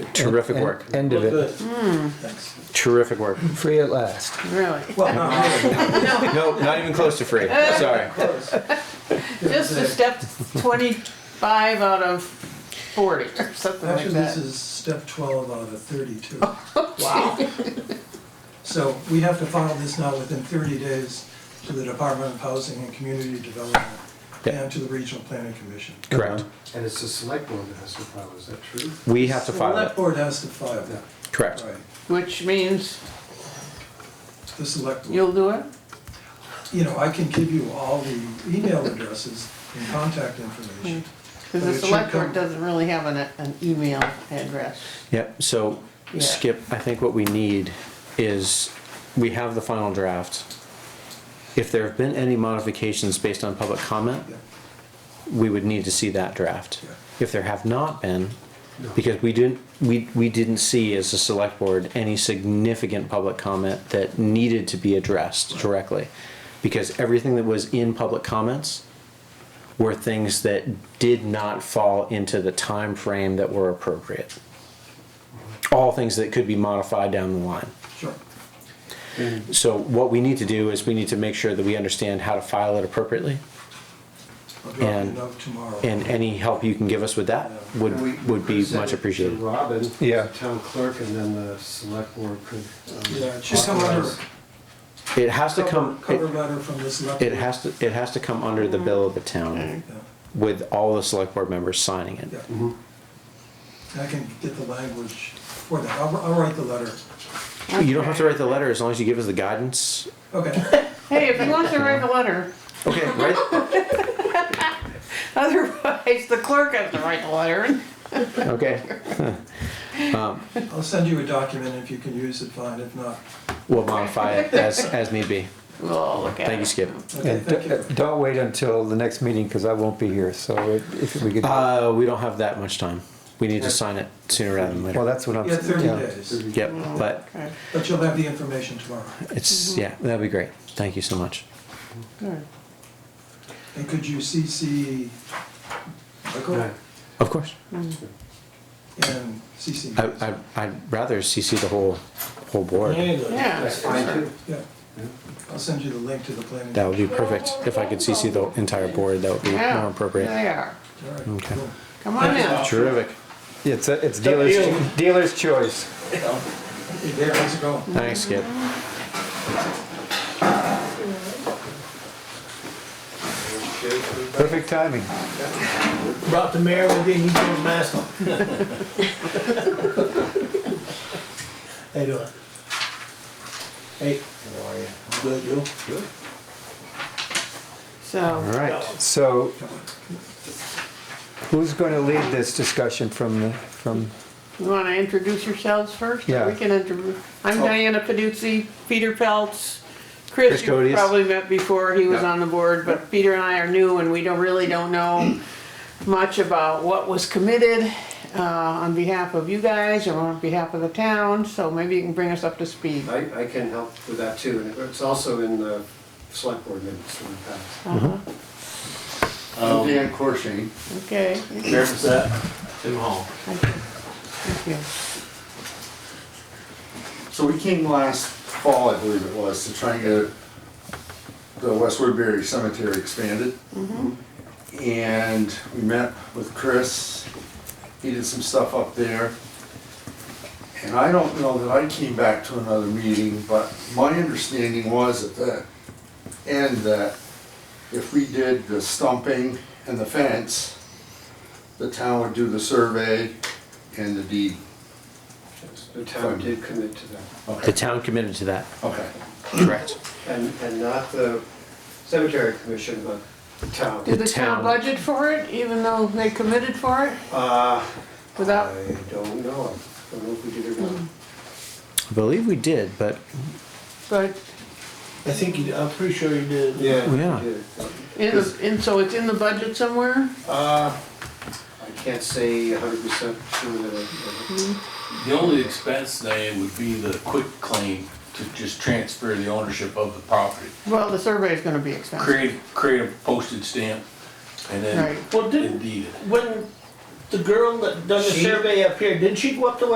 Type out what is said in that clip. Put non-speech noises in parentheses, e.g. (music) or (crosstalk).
Terrific End- work. End of Good. it, Thanks. Terrific work. free at last. Really? (laughs) Well, no, No, not even close to free. Sorry. close. Just a step twenty-five out of forty or something like Actually, this that. Oh. is step twelve out of the thirty-two. Wow. So we have to file this now within thirty days to the Department of Housing and Community Development Yeah. and to the Regional Planning Commission. Correct. And it's the select board that has to file, is that true? We have to file Select it. board has to file that, Correct. right, Which means the select board. you'll do it? You know, I can give you all the email addresses and contact information. Because Hmm. the select board doesn't really have an, an email address. Yep. So, Yeah. Skip, I think what we need is we have the final draft. If there have been any modifications based on public comment, Yeah. we would need to see that draft. Yeah. If there have not been, because we didn't, we, we didn't see as a select board any significant public comment that needed to be addressed directly. Because everything that was in public comments were things that did not fall into the time frame that were appropriate. All things that could be modified down the line. Sure, So what we need to do is we need to make sure that we understand how to file it appropriately. I'll drop you a And- note tomorrow. And any help you can give us with that We would, would be could send it much to appreciated. Robin, Yeah. town clerk, and then the select board could. um, Yeah, it should come under, authorize. It has to cover, come, cover it, letter from the select. it board. has to, it has to come under the bill of the town Yeah. with all the select board members signing Yeah. it. I can get the language for that. I'll, I'll write the letter. You don't have to write the letter as long as you give us the guidance. (laughs) Okay, Hey, if you want to write a letter, Okay, right? (laughs) otherwise the clerk has to write the letter. Okay. I'll send you a document. If you can use it, fine. If not, We'll modify it as, as need be. We'll all look at it. Thank you, Skip. okay, And thank d- you. uh, don't wait until the next meeting, because I won't be here, so it- if we could, well, Uh, we don't have that much time. We need to sign it sooner rather than later. that's what I'm. Yeah, thirty yeah. days, Yep, but Okay, but you'll have the information tomorrow. it's, yeah, that'd be great. Thank you so much. good. And could you CC Michael Right. Of course. and CC? me? I, I, I'd rather CC the whole, whole board. Yeah, That's fine too. Yeah. I'll send you the link to the planning. That would be perfect. If I could CC the entire board, that would be yeah. more appropriate. They are. All right, Okay. cool. Come on in. Terrific. It's, a- it's dealer's, deal. dealer's choice. Hey, there, how's it going? Thanks, Skip. Perfect timing. Brought the mayor with you, and he put a mask on. How you doing? Hey. How are you? Good, you? Good. All So, right, so who's going to lead this discussion from, the from, you want to introduce yourselves first? Yeah. We can introduce, I'm Diana Paduzzi, Peter Peltz, Chris, Chris you Codius. probably met before, he was on the board, but Peter and I are new and we don't, really don't know much about what was committed uh, on behalf of you guys or on behalf of the town, so maybe you can bring us up to speed. I, I can help with that too, and it's also in the select board minutes in the past. Uh-huh. I'm Dan Corshane, Okay, thank Sheriff's at Tim Hall. you. So we came last fall, I believe it was, to try and get the West Woodbury Cemetery expanded. And we met with Chris, he did some stuff up there. And I don't know that I came back to another meeting, but my understanding was at the end that if we did the stumping and the fence, the town would do the survey and the deed. The town did commit to that, The Okay, town committed to that. okay. Correct. and, and not the cemetery commission, but the town. Did the The town. town budget for it, even though they committed for it, Uh, without, I don't know, I don't know if we did or not. I believe we did, but but I think, you- I'm pretty sure you did. we Yeah. did. In, the- and so it's in the budget somewhere? Uh, I can't say hundred percent sure that, I- The only expense they would be the quick claim to just transfer the ownership of the property. Well, the survey is gonna be expensive. Create, create a postage stamp and then Right. Well, didn't, indeed it. when the girl that done the She- survey up here, didn't she go up to